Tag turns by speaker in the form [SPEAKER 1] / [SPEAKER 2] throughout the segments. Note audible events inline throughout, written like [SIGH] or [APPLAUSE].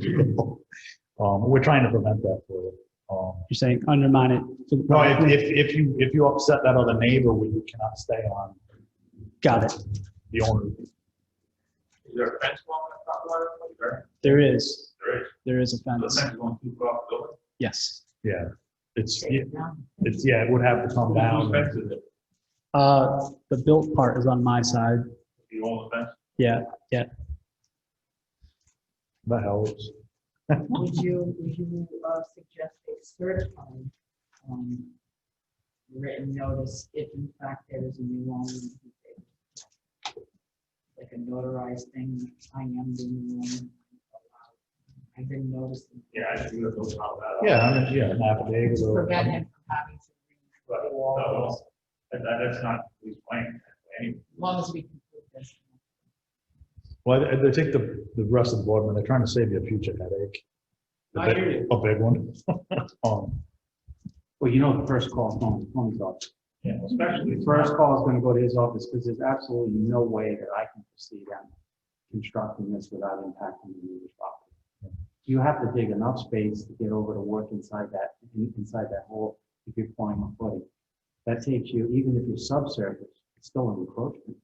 [SPEAKER 1] [LAUGHS] Um, we're trying to prevent that for you. Um,
[SPEAKER 2] You're saying undermine it. for the-
[SPEAKER 1] no, if, if, if you, if you upset that other neighbor, we cannot stay on
[SPEAKER 2] Got it.
[SPEAKER 1] the owner.
[SPEAKER 3] Is there a fence along the top line? Like, There
[SPEAKER 2] There is,
[SPEAKER 3] There is.
[SPEAKER 2] there is a
[SPEAKER 3] The
[SPEAKER 2] fence.
[SPEAKER 3] fence going too far off the building?
[SPEAKER 2] Yes.
[SPEAKER 1] Yeah, it's, it's, yeah, it would have to come
[SPEAKER 3] Whose
[SPEAKER 1] down.
[SPEAKER 3] fence is it?
[SPEAKER 2] Uh, the built part is on my side.
[SPEAKER 3] You own the fence?
[SPEAKER 2] Yeah.
[SPEAKER 1] That helps.
[SPEAKER 4] Would you, would you uh, suggest a certified um, written notice if in fact there is a new owner? Like a notarized thing, I am the new owner. I've been noticing.
[SPEAKER 3] Yeah, I should do it, those out.
[SPEAKER 1] Yeah, I mean, yeah, an affidavit or.
[SPEAKER 4] Prevent him from having to.
[SPEAKER 3] But,
[SPEAKER 4] redo all
[SPEAKER 3] no,
[SPEAKER 4] those,
[SPEAKER 3] that, that's not his plan, anyway.
[SPEAKER 4] As long as we can prove this.
[SPEAKER 1] Well, I, I think the, the rest of the board, when they're trying to save you a future headache. A
[SPEAKER 3] I
[SPEAKER 1] big-
[SPEAKER 3] hear you.
[SPEAKER 1] A big one. [LAUGHS] Um,
[SPEAKER 5] Well, you know, the first call is going to Tony's office.
[SPEAKER 1] yeah.
[SPEAKER 5] Especially. The first call is going to go to his office because there's absolutely no way that I can proceed on constructing this without impacting the neighbor's property. You have to dig enough space to get over to work inside that, in- inside that hole if you're pouring a footing. That takes you, even if you're subsurface, it's still an encroachment.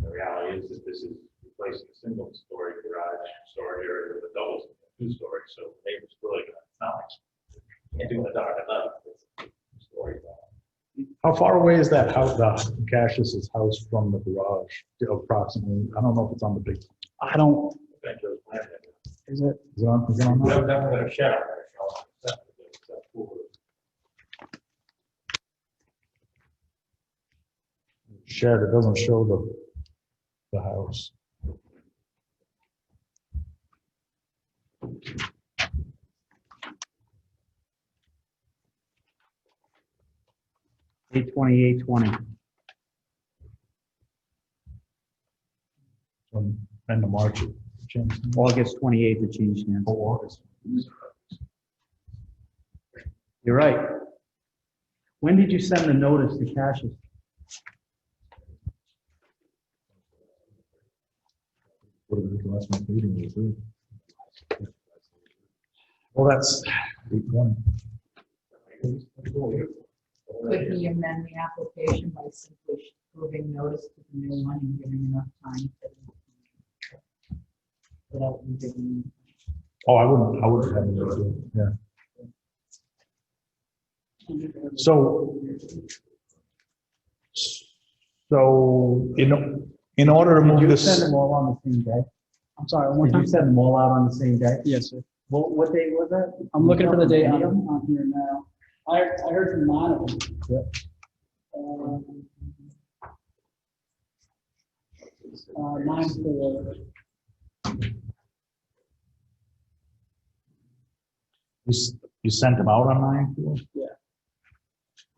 [SPEAKER 3] The reality is that this is replacing a single story garage, storage area with a double, two story, so neighbors really gonna, it's not like, can't do it dark at night. it's two story.
[SPEAKER 1] How far away is that house, the Cassius's house from the garage approximately? I don't know if it's on the big, is
[SPEAKER 2] I don't,
[SPEAKER 3] That goes back there.
[SPEAKER 2] is it,
[SPEAKER 1] it on, is it on?
[SPEAKER 3] We
[SPEAKER 1] that?
[SPEAKER 3] have definitely a shower. there, so that's- that's cool.
[SPEAKER 1] Shed, it doesn't show the, the house.
[SPEAKER 5] Eight twenty-eight twenty.
[SPEAKER 1] from end of March. James.
[SPEAKER 5] August twenty-eighth, it changed hands.
[SPEAKER 1] August.
[SPEAKER 5] You're right. When did you send the notice to Cassius?
[SPEAKER 1] What did the last month meeting was, really? Well, that's eight one.
[SPEAKER 4] Could he amend the application by simply proving notice to the new one and giving enough time? to- Without him giving.
[SPEAKER 1] Oh, I wouldn't, I wouldn't have any idea, yeah. So. So, you know, in order to
[SPEAKER 5] Did
[SPEAKER 1] move
[SPEAKER 5] you send
[SPEAKER 1] this,
[SPEAKER 5] them all on the same day?
[SPEAKER 2] I'm sorry, one more
[SPEAKER 5] Did you
[SPEAKER 2] time.
[SPEAKER 5] send them all out on the same day?
[SPEAKER 2] Yes, sir.
[SPEAKER 5] What, what day was that?
[SPEAKER 2] I'm looking for the date on, on here now. I, I heard from Monica. Um, Uh, nine four,
[SPEAKER 1] you s- you sent them out on nine? four?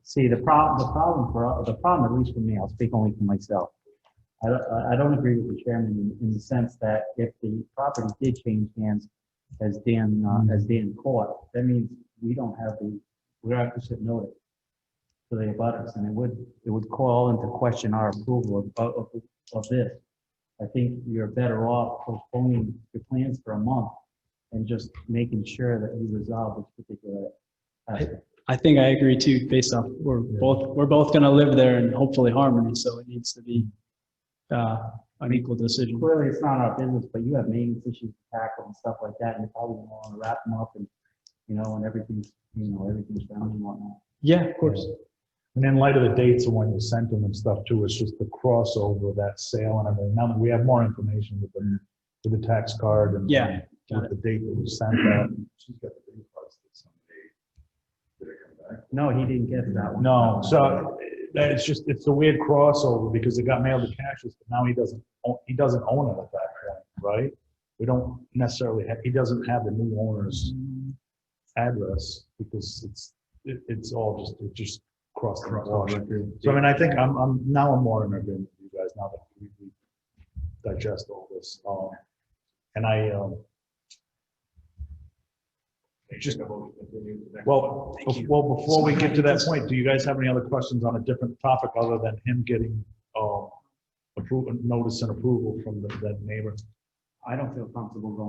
[SPEAKER 5] See, the prob, the problem for, the problem, at least for me, I'll speak only for myself. I don't, I- I don't agree with the chairman in, in the sense that if the property did change hands, as Dan, uh, as Dan caught, that means we don't have the, we don't have to sit notice to the abutters, and it would, it would call into question our approval of, of, of this. I think you're better off postponing your plans for a month and just making sure that you resolve this particular aspect.
[SPEAKER 2] I think I agree too, based off, we're both, we're both gonna live there in hopefully harmony, so it needs to be, uh, an equal decision.
[SPEAKER 5] clearly it's not our business, but you have maintenance issues to tackle and stuff like that, and you probably want to wrap them up and, you know, and everything's, you know, everything's down and whatnot.
[SPEAKER 2] Yeah, of course.
[SPEAKER 1] And in light of the dates of when you sent them and stuff too, it's just the crossover of that sale and everything. Now that we have more information with the, with the tax card and.
[SPEAKER 2] Yeah, got
[SPEAKER 1] With the date that we sent that.
[SPEAKER 3] She's got the big parts that someday, they're gonna come back.
[SPEAKER 5] No, he didn't get that one.
[SPEAKER 1] No, so that it's just, it's a weird crossover because it got mailed to Cassius, but now he doesn't, own- he doesn't own it at that point, right? We don't necessarily have, he doesn't have the new owner's address because it's, it, it's all just, it just crossed. the wash. So I mean, I think I'm, I'm, now I'm more in agreement with you guys now that we we digest all this. Um, and I, um,
[SPEAKER 3] Just a moment, continue to the next.
[SPEAKER 1] Well, bef- well, before we get to that point, do you guys have any other questions on a different topic other uh, than him getting, um, approval, notice and approval from the, that neighbor?
[SPEAKER 5] I don't feel comfortable going